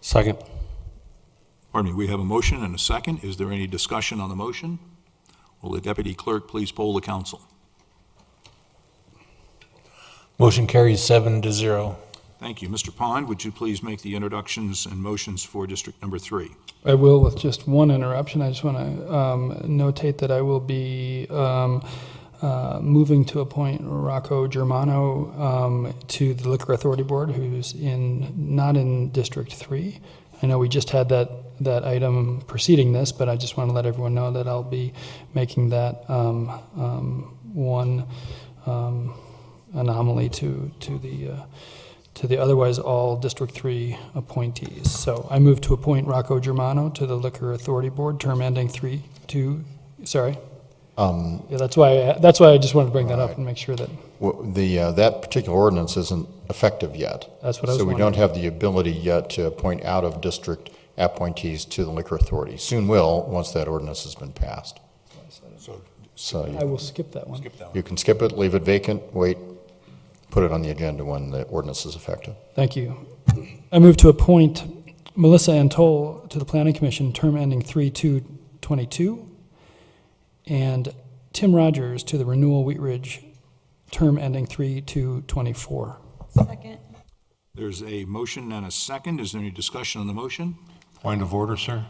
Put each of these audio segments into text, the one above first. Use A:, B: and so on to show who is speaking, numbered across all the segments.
A: Second.
B: Pardon me, we have a motion and a second. Is there any discussion on the motion? Will the deputy clerk please poll the council?
A: Motion carries seven to zero.
B: Thank you. Mr. Pond, would you please make the introductions and motions for District Number Three?
C: I will with just one interruption. I just want to um, notate that I will be um, uh, moving to appoint Rocco Germano um, to the Liquor Authority Board, who's in not in District Three. I know we just had that that item preceding this, but I just want to let everyone know that I'll be making that um, um, one um, anomaly to to the. Uh, to the otherwise all District 3 appointees. So I move to appoint Rocco Germano to the Liquor Authority Board, term ending 3, 2, sorry.
D: Um,
C: Yeah, that's why, I- that's why I just wanted to bring that up
D: Right.
C: and make sure that,
D: w- The, uh, that particular ordinance isn't effective yet.
C: that's what I was
D: So we don't
C: wondering.
D: have the ability yet to appoint out-of-district appointees to the liquor authority. Soon will, once that ordinance has been passed.
B: So-
D: So
C: I
D: you-
C: will skip that one.
B: Skip that one.
D: you can skip it, leave it vacant, wait, put it on the agenda when the ordinance is effective.
C: Thank you. I move to appoint Melissa Antol to the Planning Commission, term ending 3/2/22, and Tim Rogers to the Renewal Wheat Ridge, term ending 3/2/24.
E: Second.
B: There's a motion and a second. Is there any discussion on the motion?
F: Point of order, sir.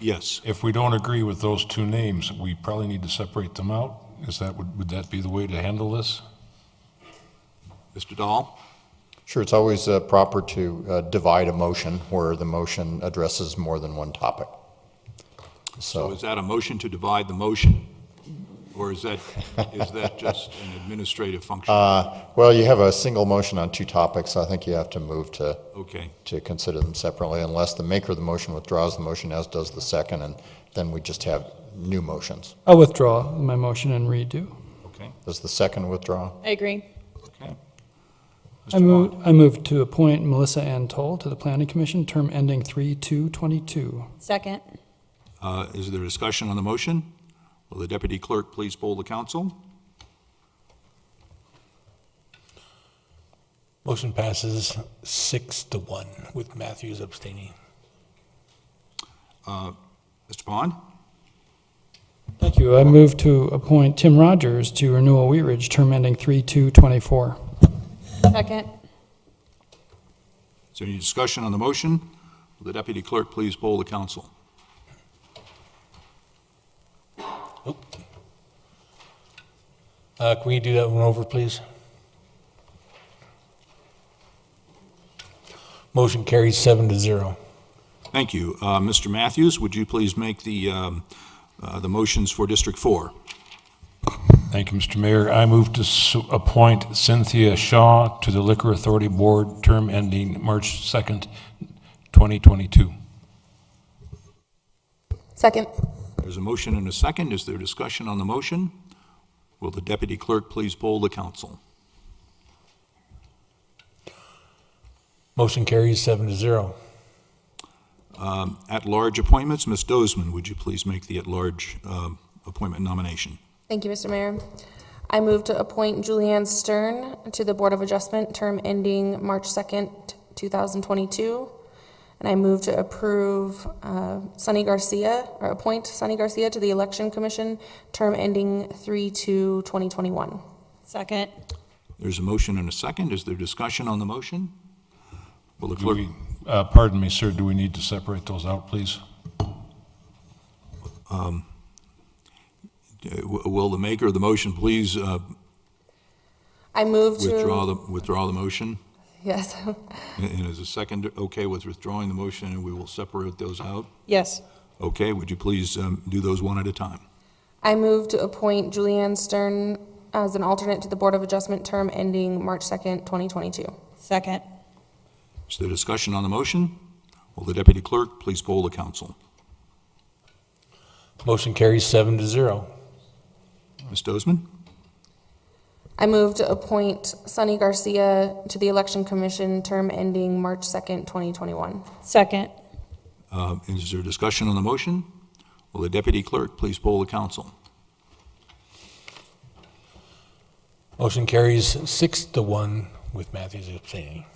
B: Yes.
F: If we don't agree with those two names, we probably need to separate them out. Is that, would would that be the way to handle this?
B: Mr. Dahl?
D: Sure, it's always uh, proper to uh, divide a motion where the motion addresses more than one topic.
B: So
D: So
B: is that a motion to divide the motion? Or is that, is that just an administrative function?
D: Uh, Well, you have a single motion on two topics, so I think you have to move to,
B: Okay,
D: to consider them separately unless the maker of the motion withdraws the motion, as does the second, and then we just have new motions.
C: I'll withdraw my motion and redo.
B: okay,
D: Does the second withdraw?
E: I agree.
B: okay.
C: I
B: Mr. Vaughn?
C: move, I move to appoint Melissa Ann Toll to the Planning Commission, term ending 3/2/22.
E: Second.
B: Uh, Is there discussion on the motion? Will the deputy clerk please poll the council?
A: Motion passes six to one with Matthews abstaining.
B: Mr. Pond?
C: Thank you. I move to appoint Tim Rogers to Renewal Wheat Ridge, term ending 3/2/24.
E: Second.
B: Is there any discussion on the motion? Will the deputy clerk please poll the council?
A: Oh. Uh, can we do that one over, please? Motion carries seven to zero.
B: Thank you. Uh, Mr. Matthews, would you please make the, um, uh, the motions for District Four?
F: Thank you, Mr. Mayor. I move to s- appoint Cynthia Shaw to the Liquor Authority Board, term ending March 2nd, 2022.
E: Second.
B: There's a motion and a second. Is there discussion on the motion? Will the deputy clerk please poll the council?
A: Motion carries seven to zero.
B: Um, At-large appointments, Ms. Dozeman, would you please make the at-large um, appointment nomination?
G: Thank you, Mr. Mayor. I move to appoint Julianne Stern to the Board of Adjustment, term ending March 2nd, 2022. And I move to approve uh, Sunny Garcia, or appoint Sunny Garcia to the Election Commission, term ending 3/2/2021.
E: Second.
B: There's a motion and a second. Is there discussion on the motion? Will the
F: Do
B: clerk?
F: we- uh, Pardon me, sir, do we need to separate those out, please?
B: Uh, w- Will the maker of the motion please uh,
G: I move to.
B: withdraw the, withdraw the motion?
G: Yes.
B: And is the second okay with withdrawing the motion, and we will separate those out?
E: Yes.
B: Okay, would you please um, do those one at a time?
G: I move to appoint Julianne Stern as an alternate to the Board of Adjustment, term ending March 2nd, 2022.
E: Second.
B: Is there discussion on the motion? Will the deputy clerk please poll the council?
A: Motion carries seven to zero.
B: Ms. Dozeman?
G: I move to appoint Sunny Garcia to the Election Commission, term ending March 2nd, 2021.
E: Second.
B: Uh, Is there discussion on the motion? Will the deputy clerk please poll the council?
A: Motion carries six to one with Matthews abstaining.